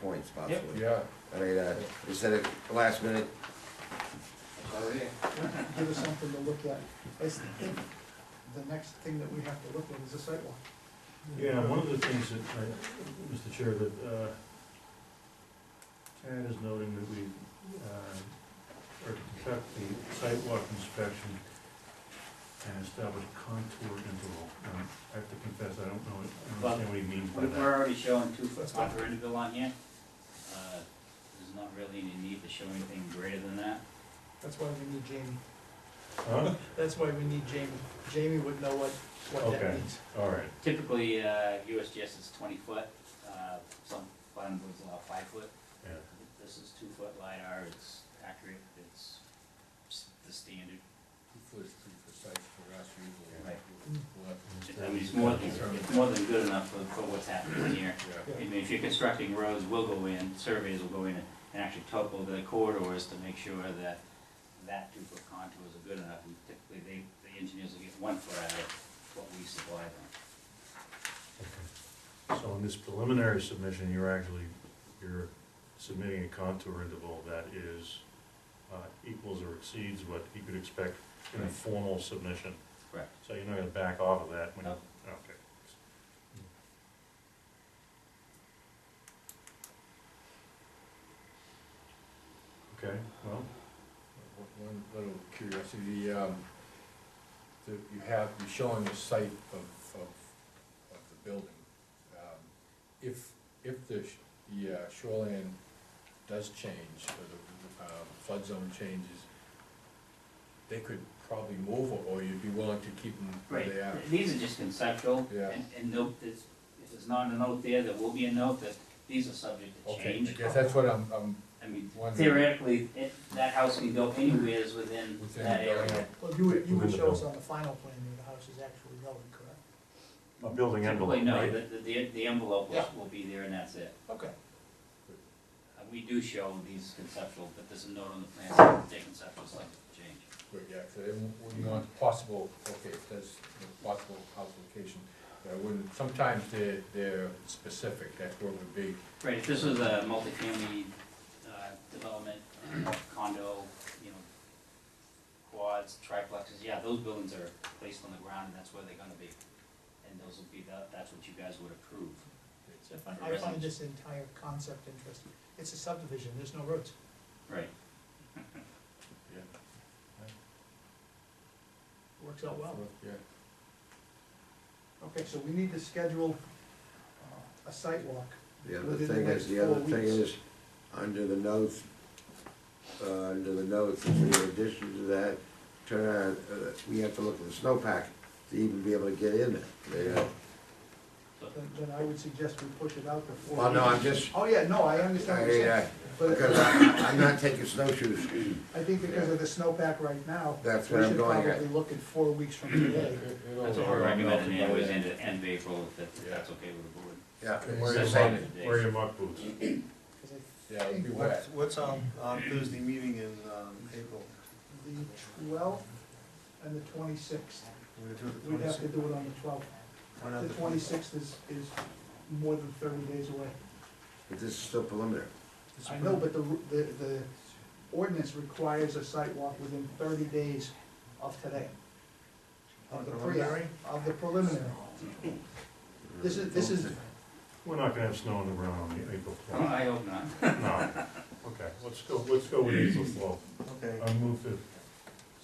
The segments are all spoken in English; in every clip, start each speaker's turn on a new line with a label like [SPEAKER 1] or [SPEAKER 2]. [SPEAKER 1] points possibly.
[SPEAKER 2] Yeah,
[SPEAKER 1] I mean, uh, instead of last minute,
[SPEAKER 3] give us something to look at. It's, the next thing that we have to look at is a sidewalk.
[SPEAKER 4] Yeah, one of the things that, I- Mr. Chair, that uh, Tad is noting that we, uh, are to conduct the sidewalk inspection and establish contour interval. Um, I have to confess, I don't know, I don't understand what he means by
[SPEAKER 5] We're
[SPEAKER 4] that.
[SPEAKER 5] we're already showing two foot upper interval on here. Uh, There's not really any need to show anything greater than that.
[SPEAKER 3] That's why we need Jamie.
[SPEAKER 4] Huh?
[SPEAKER 3] That's why we need Jamie. Jamie would know what, what that
[SPEAKER 4] Okay.
[SPEAKER 3] means.
[SPEAKER 4] All right,
[SPEAKER 5] Typically, uh, USGS is twenty foot, uh, some bottom boards allow five foot.
[SPEAKER 4] yeah,
[SPEAKER 5] This is two foot LiDAR, it's accurate, it's s- the standard.
[SPEAKER 6] Two foot is pretty precise for us usually.
[SPEAKER 5] Right.
[SPEAKER 6] We'll have to-
[SPEAKER 5] I mean, it's more than, it's more than good enough for, for what's happening here.
[SPEAKER 6] Yeah.
[SPEAKER 5] I mean, if you're constructing roads, we'll go in, surveys will go in and and actually topo the corridors to make sure that that two-foot contours are good enough. And Typically, they, the engineers will get one foot out of what we supply them.
[SPEAKER 4] okay. So in this preliminary submission, you're actually, you're submitting a contour interval that is, uh, equals or exceeds what you could expect in a
[SPEAKER 5] Right.
[SPEAKER 4] formal submission.
[SPEAKER 5] Correct.
[SPEAKER 4] So you're not gonna back off of that when you,
[SPEAKER 5] No.
[SPEAKER 4] okay. Okay, well,
[SPEAKER 6] One little curiosity, the, um, the, you have, you're showing the site of, of, of the building. Um, If, if the, sh- the uh, shoreline does change, or the, uh, flood zone changes, they could probably move, or you'd be willing to keep them where
[SPEAKER 5] Right,
[SPEAKER 6] they are.
[SPEAKER 5] these are just conceptual.
[SPEAKER 6] Yeah.
[SPEAKER 5] And, and note this, if there's not a note there, there will be a note that these are subject to
[SPEAKER 6] Okay,
[SPEAKER 5] change.
[SPEAKER 6] I guess that's what I'm, I'm
[SPEAKER 5] I mean,
[SPEAKER 6] wondering.
[SPEAKER 5] theoretically, it, that house can go anywheres within
[SPEAKER 6] Within
[SPEAKER 5] that
[SPEAKER 6] the building.
[SPEAKER 5] area.
[SPEAKER 3] Well, you would, you
[SPEAKER 4] Within
[SPEAKER 3] would
[SPEAKER 4] the
[SPEAKER 3] show us on the final plan where the house is actually going, correct?
[SPEAKER 4] a building
[SPEAKER 5] Typically,
[SPEAKER 4] envelope,
[SPEAKER 5] no,
[SPEAKER 4] right?
[SPEAKER 5] the, the, the envelope will,
[SPEAKER 3] Yeah.
[SPEAKER 5] will be there and that's it.
[SPEAKER 3] Okay.
[SPEAKER 5] Uh, We do show these conceptual, but there's a note on the plans that they conceptual site change.
[SPEAKER 6] Right, yeah, so it would be on possible, okay, it says the possible house location, but I wouldn't, sometimes they're, they're specific, that's where it would be.
[SPEAKER 5] Right, if this was a multifamily, uh, development, uh, condo, you know, quads, triplexes, yeah, those buildings are placed on the ground and that's where they're gonna be. And those will be, that, that's what you guys would approve.
[SPEAKER 3] So if I I find this entire concept interesting. It's a subdivision, there's no roads.
[SPEAKER 5] Right.
[SPEAKER 6] Yeah.
[SPEAKER 3] Works out well.
[SPEAKER 6] Yeah,
[SPEAKER 3] Okay, so we need to schedule uh, a sidewalk.
[SPEAKER 1] the other
[SPEAKER 3] Within the
[SPEAKER 1] thing
[SPEAKER 3] next
[SPEAKER 1] is, the other
[SPEAKER 3] four
[SPEAKER 1] thing
[SPEAKER 3] weeks.
[SPEAKER 1] is, under the notes, uh, under the notes, in addition to that, turn around, uh, we have to look at the snowpack to even be able to get in there. uh, you know.
[SPEAKER 3] Then, then I would suggest we push it out before.
[SPEAKER 1] Well, no, I'm just,
[SPEAKER 3] Oh, yeah, no, I
[SPEAKER 1] I,
[SPEAKER 3] understand what you're saying.
[SPEAKER 1] uh, because
[SPEAKER 3] But
[SPEAKER 1] I, I'm not taking snowshoes,
[SPEAKER 3] I think because of the snowpack right now,
[SPEAKER 1] that's
[SPEAKER 3] we
[SPEAKER 1] what I'm
[SPEAKER 3] should
[SPEAKER 1] going at.
[SPEAKER 3] probably look at four weeks from today.
[SPEAKER 5] That's what we're recommending anyways, end, of- end of April, if that's, if
[SPEAKER 6] Yeah.
[SPEAKER 5] that's okay with the board.
[SPEAKER 1] Yeah,
[SPEAKER 6] And where
[SPEAKER 5] So
[SPEAKER 6] is
[SPEAKER 5] that's
[SPEAKER 6] it?
[SPEAKER 5] all the days.
[SPEAKER 4] Wear your muck boots.
[SPEAKER 3] 'Cause I
[SPEAKER 6] Yeah, it'd be wet.
[SPEAKER 7] What's, what's our, our Thursday meeting in, um, April?
[SPEAKER 3] The twelfth and the twenty-sixth.
[SPEAKER 7] We're gonna do it the
[SPEAKER 3] We'd have to
[SPEAKER 7] 26th?
[SPEAKER 3] do it on the twelfth.
[SPEAKER 7] Why not
[SPEAKER 3] The twenty-sixth is, is more than thirty days away.
[SPEAKER 1] but this is still preliminary.
[SPEAKER 3] I know, but the, ru- the, the ordinance requires a site walk within thirty days of today. Of the pre,
[SPEAKER 7] Preliminary?
[SPEAKER 3] of the preliminary. This is, this is,
[SPEAKER 4] We're not gonna have snow on the ground on the April
[SPEAKER 5] Oh,
[SPEAKER 4] twelfth,
[SPEAKER 5] I hope not.
[SPEAKER 4] no. Okay, let's go, let's go with April twelfth.
[SPEAKER 7] Okay,
[SPEAKER 4] I'll move to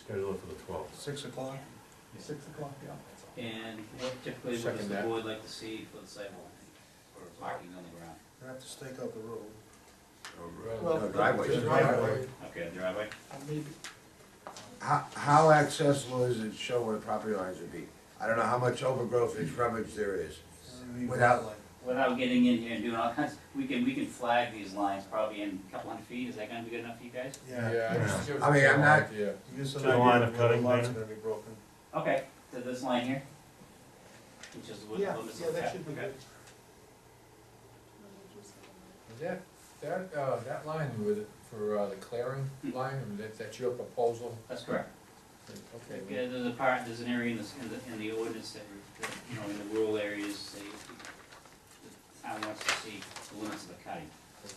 [SPEAKER 4] schedule it for the twelfth.
[SPEAKER 7] six o'clock?
[SPEAKER 3] six o'clock, yeah.
[SPEAKER 5] And what typically, what does
[SPEAKER 6] Second
[SPEAKER 5] the
[SPEAKER 6] that.
[SPEAKER 5] board like to see for the sidewalk, or parking on the ground?
[SPEAKER 7] We have to stake out the road.
[SPEAKER 3] Well,
[SPEAKER 1] No driveways.
[SPEAKER 3] the driveway,
[SPEAKER 5] Okay, the driveway?
[SPEAKER 3] uh, maybe,
[SPEAKER 1] How, how accessible is it, show where the property lines would be? I don't know how much overgrowth and shrubage there is.
[SPEAKER 7] And leave
[SPEAKER 1] Without-
[SPEAKER 7] that line.
[SPEAKER 5] Without getting in here and doing all kinds, we can, we can flag these lines probably in a couple hundred feet, is that gonna be good enough for you guys?
[SPEAKER 7] Yeah.
[SPEAKER 6] Yeah, it just gives
[SPEAKER 1] I mean,
[SPEAKER 6] us
[SPEAKER 1] I'm
[SPEAKER 6] an
[SPEAKER 1] not-
[SPEAKER 6] idea.
[SPEAKER 7] Give us an
[SPEAKER 4] To the line
[SPEAKER 7] idea
[SPEAKER 4] of
[SPEAKER 7] of where the
[SPEAKER 4] cutting
[SPEAKER 7] lines are
[SPEAKER 4] there.
[SPEAKER 7] gonna be broken.
[SPEAKER 5] Okay, so this line here? Which is what,
[SPEAKER 3] yeah,
[SPEAKER 5] what is
[SPEAKER 3] yeah, that should be
[SPEAKER 5] okay.
[SPEAKER 3] good.
[SPEAKER 6] Is That, that, uh, that line with, for, uh, the clearing line, I mean, that, that's your proposal?
[SPEAKER 5] That's correct.
[SPEAKER 6] Okay,
[SPEAKER 5] Okay, there's a part, there's an area in this, in the, in the ordinance that, re- that, you know, in the rural areas, they, the town wants to see the limits of the cutting.